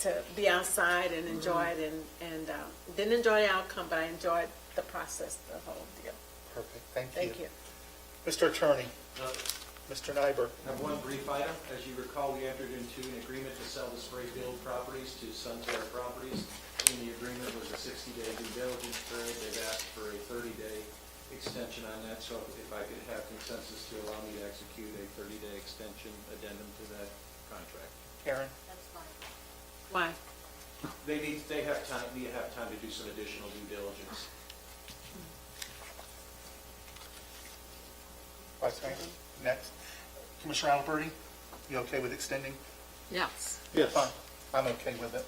to be outside and enjoy it and, and um, didn't enjoy the outcome, but I enjoyed the process, the whole deal. Perfect, thank you. Thank you. Mr. Attorney, Uh, Mr. Nyberg. Have one brief item. As you recall, we entered into an agreement to sell the Sprayfield properties to Sunterra Properties. In the agreement was a 60-day due diligence period. They've asked for a 30-day extension on that, so if I could have consensus to allow me to execute a 30-day extension addendum to that contract. Karen? Why? They need, they have time, need to have time to do some additional due diligence. Vice Mayor? Next. Commissioner Alberti, you okay with extending? Yes. Yes. I'm okay with it.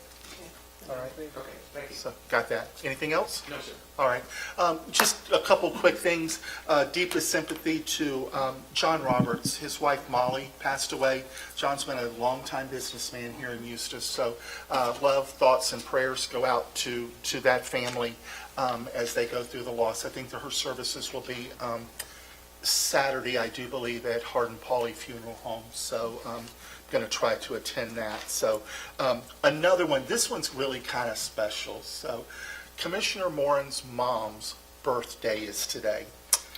All right. Okay, thank So, got that. Anything else? No, sir. All right. Um, Just a couple quick things. Uh, Deepest sympathy to um, John Roberts. His wife Molly passed away. John's been a longtime businessman here in Eustis, so uh, love, thoughts, and prayers go out to, to that family um, as they go through the loss. I think that her services will be um, Saturday, I do believe, at Hardin Pauley Funeral Home, so I'm going to try to attend that. So um, another one, this one's really kind of special. So Commissioner Moran's mom's birthday is today.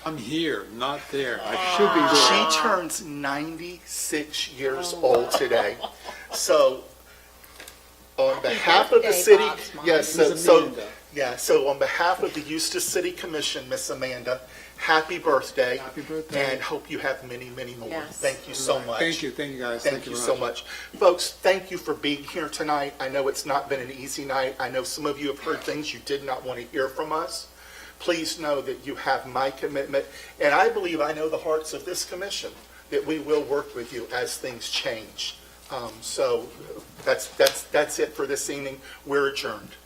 I'm here, not there. I should be Ah. there. She turns 96 years old today. So on behalf of the birthday, city, Bob's mom. yes, so, Ms. so- Amanda. yeah, so on behalf of the Eustis City Commission, Miss Amanda, happy birthday. Happy birthday. And hope you have many, many more. Yes. Thank you so much. Thank you, thank you guys. Thank you very so much. Folks, thank you for being here tonight. I know it's not been an easy night. I know some of you have heard things you did not want to hear from us. Please know that you have my commitment, and I believe I know the hearts of this commission, that we will work with you as things change. Um, So that's, that's, that's it for this evening. We're adjourned.